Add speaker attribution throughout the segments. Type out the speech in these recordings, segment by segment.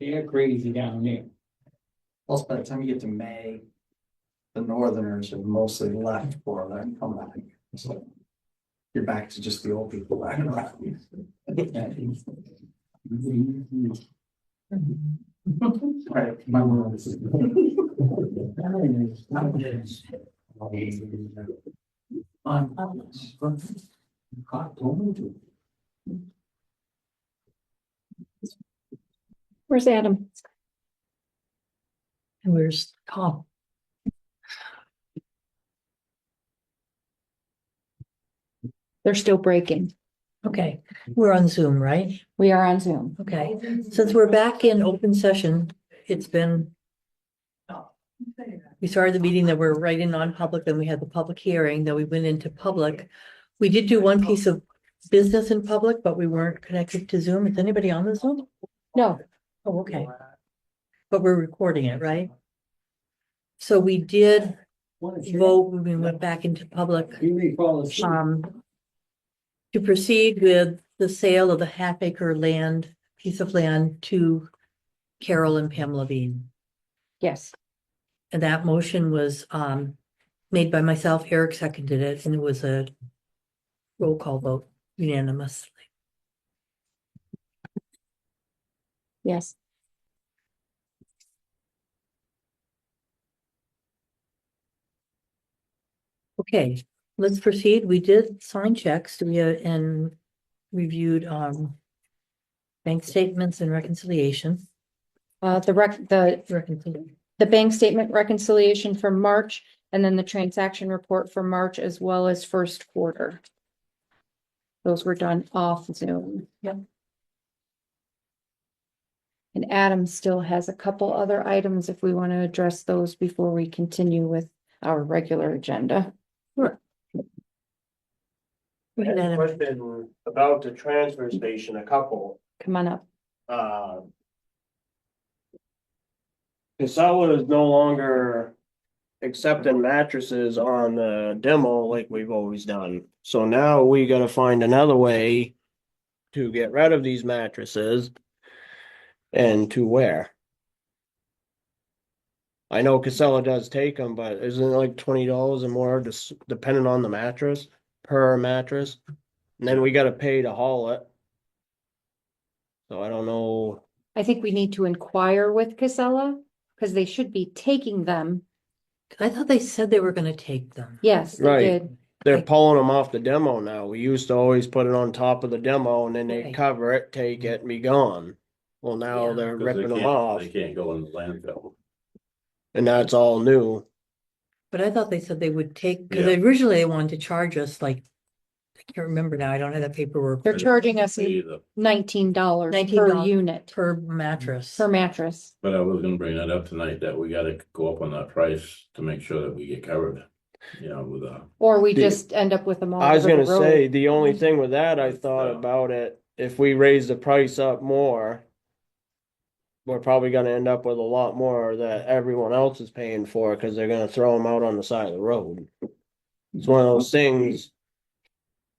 Speaker 1: They're crazy down there.
Speaker 2: Plus, by the time you get to May, the northerners have mostly left for that and come back. So You're back to just the old people back around. Right, my world is. I'm. God, don't do it.
Speaker 3: Where's Adam?
Speaker 4: And where's Tom?
Speaker 3: They're still breaking.
Speaker 4: Okay, we're on Zoom, right?
Speaker 3: We are on Zoom.
Speaker 4: Okay, since we're back in open session, it's been. We started the meeting that we're right in non-public, then we had the public hearing, then we went into public. We did do one piece of business in public, but we weren't connected to Zoom. Is anybody on the Zoom?
Speaker 3: No,
Speaker 4: Oh, okay, but we're recording it, right? So we did vote, when we went back into public.
Speaker 1: You may fall asleep.
Speaker 4: um, to proceed with the sale of the half acre land, piece of land to Carol and Pam Levine.
Speaker 3: yes.
Speaker 4: And that motion was, um, made by myself, Eric seconded it, and it was a roll call vote unanimously.
Speaker 3: Yes.
Speaker 4: Okay, let's proceed. We did sign checks. We, uh, and reviewed, um, bank statements and reconciliation,
Speaker 3: Uh, the rec, the,
Speaker 4: reconciliation.
Speaker 3: the bank statement reconciliation for March and then the transaction report for March as well as first quarter. Those were done off Zoom.
Speaker 4: Yep.
Speaker 3: And Adam still has a couple other items if we want to address those before we continue with our regular agenda.
Speaker 4: We had
Speaker 5: had a
Speaker 4: a-
Speaker 5: Question about the transfer station, a couple,
Speaker 3: Come on up.
Speaker 5: uh. Casella is no longer accepting mattresses on the demo like we've always done. So now we gotta find another way to get rid of these mattresses and to where. I know Casella does take them, but isn't it like twenty dollars and more, just depending on the mattress, per mattress? And then we gotta pay to haul it. So I don't know.
Speaker 3: I think we need to inquire with Casella because they should be taking them.
Speaker 4: I thought they said they were gonna take them.
Speaker 3: Yes, they
Speaker 5: Right.
Speaker 3: did.
Speaker 5: They're
Speaker 4: Like-
Speaker 5: pulling them off the demo now. We used to always put it on top of the demo and then they
Speaker 4: Right.
Speaker 5: cover it,
Speaker 3: Mm-hmm.
Speaker 5: take it and be gone. Well, now
Speaker 4: Yeah.
Speaker 5: they're
Speaker 6: 'Cause they
Speaker 5: ripping them
Speaker 6: can't-
Speaker 5: off
Speaker 6: They can't go in the landfill.
Speaker 5: and that's all new.
Speaker 4: But I thought they said they would take, because
Speaker 6: Yeah.
Speaker 4: originally they wanted to charge us like, I can't remember now, I don't have that paperwork,
Speaker 3: They're charging us
Speaker 6: Either,
Speaker 3: nineteen dollars per
Speaker 4: $19.
Speaker 3: unit,
Speaker 4: per mattress.
Speaker 3: per mattress.
Speaker 6: but I was gonna bring that up tonight, that we gotta go up on that price to make sure that we get covered, you know, with uh
Speaker 3: Or we
Speaker 5: The-
Speaker 3: just end up with them all.
Speaker 5: I was
Speaker 3: over the
Speaker 5: gonna say,
Speaker 3: road. Mm-hmm.
Speaker 5: the only thing with that, I thought
Speaker 6: Yeah.
Speaker 5: about it, if we raise the price up more. We're probably gonna end up with a lot more that everyone else is paying for, cause they're gonna throw them out on the side of the road. It's one of those things.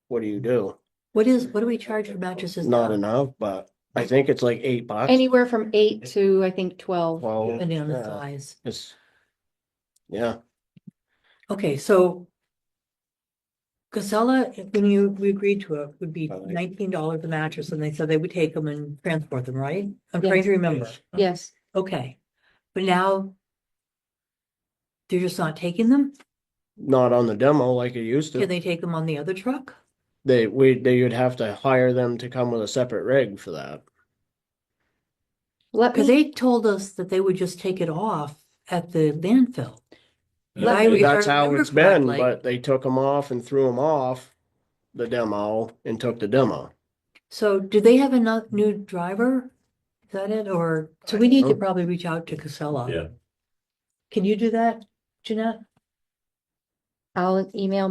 Speaker 5: What do you do?
Speaker 4: What is, what do we charge for mattresses?
Speaker 5: Not
Speaker 4: now?
Speaker 5: enough, but I think it's like eight bucks.
Speaker 3: Anywhere from eight to, I think, twelve.
Speaker 5: Well,
Speaker 4: Depending on the
Speaker 5: yeah,
Speaker 4: size.
Speaker 5: it's- Yeah,
Speaker 4: Okay, so Casella, when you, we agreed to it, would be
Speaker 5: I think-
Speaker 4: nineteen dollars a mattress, and they said they would take them and transport them, right? I'm
Speaker 3: Yes.
Speaker 4: trying to remember.
Speaker 3: Yes,
Speaker 4: Okay, but now they're just not taking them?
Speaker 5: not on the demo like it used
Speaker 4: Can
Speaker 5: to.
Speaker 4: they take them on the other truck?
Speaker 5: They, we, they would have to hire them to come with a separate rig for that.
Speaker 3: let
Speaker 4: Because
Speaker 3: me,
Speaker 4: they told us that they would just take it off at the landfill. I re-
Speaker 5: That's how
Speaker 4: remember
Speaker 5: it's been,
Speaker 4: correctly.
Speaker 5: but they took them off and threw them off the demo and took the demo.
Speaker 4: So do they have enough new driver? Is that it? Or, so we need to
Speaker 5: know.
Speaker 4: probably reach out to Casella.
Speaker 6: Yeah.
Speaker 4: Can you do that, Jeanette?
Speaker 3: I'll email